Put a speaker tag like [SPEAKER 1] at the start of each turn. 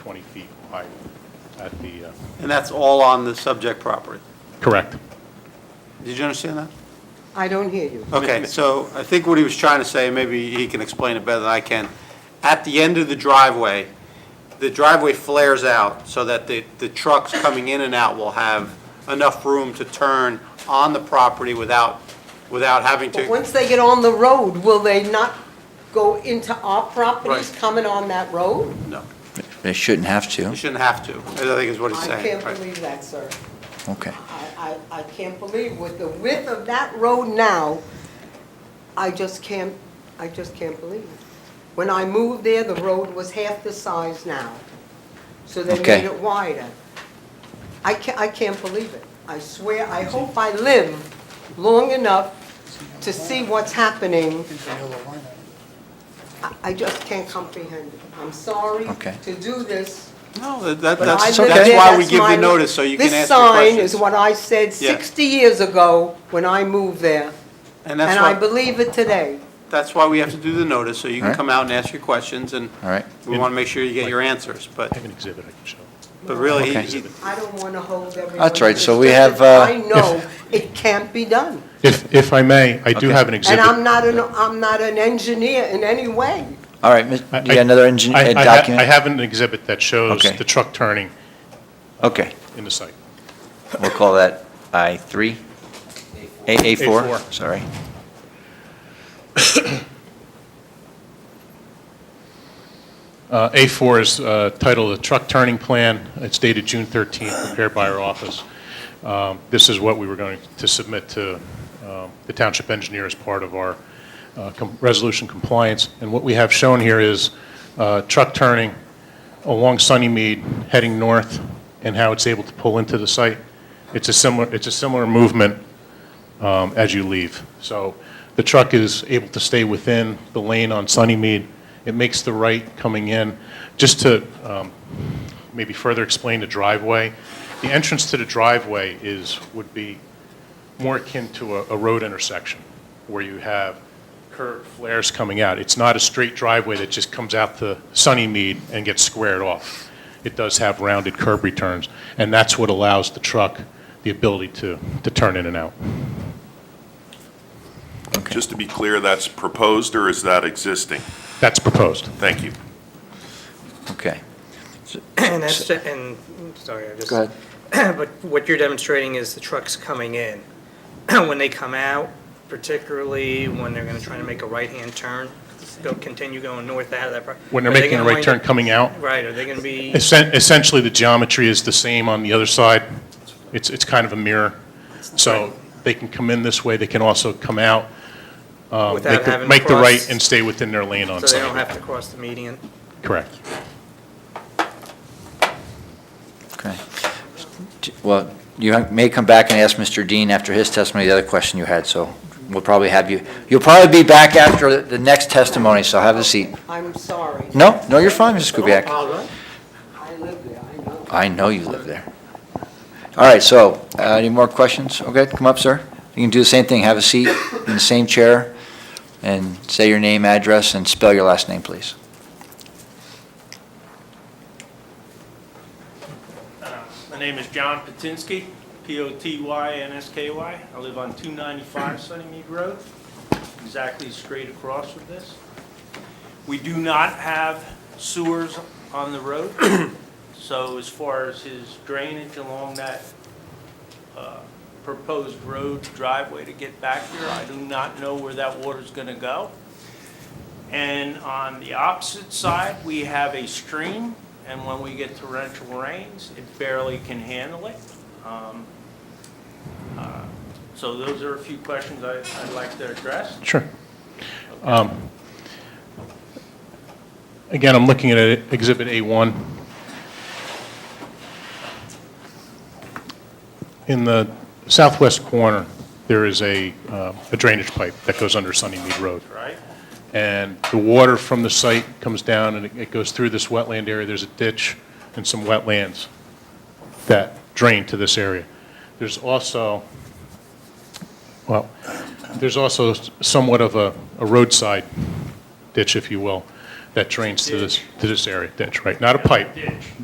[SPEAKER 1] 20 feet wide at the, uh,
[SPEAKER 2] And that's all on the subject property.
[SPEAKER 1] correct.
[SPEAKER 2] Did you understand that?
[SPEAKER 3] I don't hear you.
[SPEAKER 2] Okay, so I think what he was trying to say, maybe he can explain it better than I can. At the end of the driveway, the driveway flares out so that the, the trucks coming in and out will have enough room to turn on the property without, without having
[SPEAKER 3] But
[SPEAKER 2] to.
[SPEAKER 3] once they get on the road, will they not go into our properties
[SPEAKER 2] Right.
[SPEAKER 3] coming on that road?
[SPEAKER 2] No,
[SPEAKER 4] They shouldn't have
[SPEAKER 2] you
[SPEAKER 4] to.
[SPEAKER 2] shouldn't have to, I think is what he's
[SPEAKER 3] I
[SPEAKER 2] saying.
[SPEAKER 3] can't
[SPEAKER 2] right.
[SPEAKER 3] believe that, sir.
[SPEAKER 4] Okay.
[SPEAKER 3] I, I, I can't believe with the width of that road now, I just can't, I just can't believe it. When I moved there, the road was half the size now, so they
[SPEAKER 4] Okay.
[SPEAKER 3] made it wider. I can't, I can't believe it. I swear, I hope I live long enough to see what's happening. I- I just can't comprehend it. I'm sorry
[SPEAKER 4] Okay.
[SPEAKER 3] to do this.
[SPEAKER 2] No, that- that,
[SPEAKER 3] But I
[SPEAKER 2] that's,
[SPEAKER 3] live
[SPEAKER 2] that's
[SPEAKER 3] there,
[SPEAKER 2] why we
[SPEAKER 3] that's
[SPEAKER 2] give
[SPEAKER 3] my-
[SPEAKER 2] the notice, so you can ask your
[SPEAKER 3] This sign is
[SPEAKER 2] questions.
[SPEAKER 3] what I said
[SPEAKER 2] Yeah.
[SPEAKER 3] 60 years ago when I moved there,
[SPEAKER 2] And
[SPEAKER 3] and I
[SPEAKER 2] that's why,
[SPEAKER 3] believe it today.
[SPEAKER 2] that's why we have to do the notice, so you can
[SPEAKER 4] Alright.
[SPEAKER 2] come out and ask your questions, and
[SPEAKER 4] All right.
[SPEAKER 2] we want to make sure you get your answers, but,
[SPEAKER 1] I have an exhibit I can show.
[SPEAKER 2] but really,
[SPEAKER 4] Okay.
[SPEAKER 2] he- he,
[SPEAKER 3] I don't want to hold everyone.
[SPEAKER 4] That's right, so
[SPEAKER 3] It's
[SPEAKER 4] we
[SPEAKER 3] just
[SPEAKER 4] have,
[SPEAKER 3] that
[SPEAKER 4] uh,
[SPEAKER 3] I know it can't be done,
[SPEAKER 1] If, if I may, I do
[SPEAKER 4] Okay.
[SPEAKER 1] have an
[SPEAKER 3] and
[SPEAKER 1] exhibit.
[SPEAKER 3] I'm not an, I'm not an engineer in any way.
[SPEAKER 4] All right, Ms-
[SPEAKER 1] I-
[SPEAKER 4] do you have another engine,
[SPEAKER 1] I-
[SPEAKER 4] uh,
[SPEAKER 1] I ha- I
[SPEAKER 4] document?
[SPEAKER 1] have an exhibit that shows
[SPEAKER 4] Okay.
[SPEAKER 1] the truck turning
[SPEAKER 4] Okay,
[SPEAKER 1] in the site.
[SPEAKER 4] we'll call that I-3? A,
[SPEAKER 1] A4.
[SPEAKER 4] A4, sorry.
[SPEAKER 1] Uh, A4 is uh, titled "The Truck Turning Plan." It's dated June 13th, prepared by our office. Um, This is what we were going to submit to um, the township engineer as part of our uh, com- resolution compliance. And what we have shown here is uh, truck turning along Sunnymead, heading north, and how it's able to pull into the site. It's a similar, it's a similar movement um, as you leave. So the truck is able to stay within the lane on Sunnymead. It makes the right coming in. Just to um, maybe further explain the driveway, the entrance to the driveway is, would be more akin to a a road intersection where you have curved flares coming out. It's not a straight driveway that just comes out to Sunnymead and gets squared off. It does have rounded curb returns, and that's what allows the truck the ability to, to turn in and out.
[SPEAKER 5] Just to be clear, that's proposed or is that existing?
[SPEAKER 1] That's proposed.
[SPEAKER 5] Thank you.
[SPEAKER 4] Okay,
[SPEAKER 6] And that's, ju- and, sorry, I just.
[SPEAKER 4] go ahead.
[SPEAKER 6] But what you're demonstrating is the trucks coming in. When they come out, particularly when they're gonna try to make a right-hand turn, go, continue going north out of that. pro-
[SPEAKER 1] When they're
[SPEAKER 6] are they
[SPEAKER 1] making a
[SPEAKER 6] gonna
[SPEAKER 1] right
[SPEAKER 6] wind
[SPEAKER 1] turn
[SPEAKER 6] up-
[SPEAKER 1] coming out,
[SPEAKER 6] Right, are they gonna be,
[SPEAKER 1] essen- essentially, the geometry is the same on the other side. It's, it's kind of a mirror. So they can come in this way, they can also come out, um,
[SPEAKER 6] Without
[SPEAKER 1] make the-
[SPEAKER 6] having to
[SPEAKER 1] Make the right
[SPEAKER 6] cross-
[SPEAKER 1] and stay within their lane on
[SPEAKER 6] so they don't
[SPEAKER 1] site.
[SPEAKER 6] have to cross the median?
[SPEAKER 1] Correct.
[SPEAKER 4] Okay. D- Well, you ha- may come back and ask Mr. Dean after his testimony, the other question you had, so we'll probably have you, you'll probably be back after the- the next testimony, so have a seat.
[SPEAKER 3] I'm sorry.
[SPEAKER 4] No, no, you're fine, Mrs. Kubiac.
[SPEAKER 3] I live there, I know.
[SPEAKER 4] I know you live there. All right, so, uh, any more questions? Okay, come up, sir. You can do the same thing, have a seat in the same chair, and say your name, address, and spell your last name, please.
[SPEAKER 7] Uh, My name is John Potinsky, P-O-T-Y-N-S-K-Y. I live on 295 Sunnymead Road, exactly straight across from this. We do not have sewers on the road, so as far as his drainage along that uh, proposed road driveway to get back here, I do not know where that water's going to go. And on the opposite side, we have a stream, and when we get torrential rains, it barely can handle it. Um, uh, So those are a few questions I- I'd like to address.
[SPEAKER 1] Sure. Um, Again, I'm looking at it- Exhibit A1. In the southwest corner, there is a uh, a drainage pipe that goes under Sunnymead Road.
[SPEAKER 7] Right?
[SPEAKER 1] and the water from the site comes down and it- it goes through this wetland area. There's a ditch and some wetlands that drain to this area. There's also, well, there's also somewhat of a a roadside ditch, if you will, that drains to this, to this area, ditch, right? Not a pipe.
[SPEAKER 7] Ditch.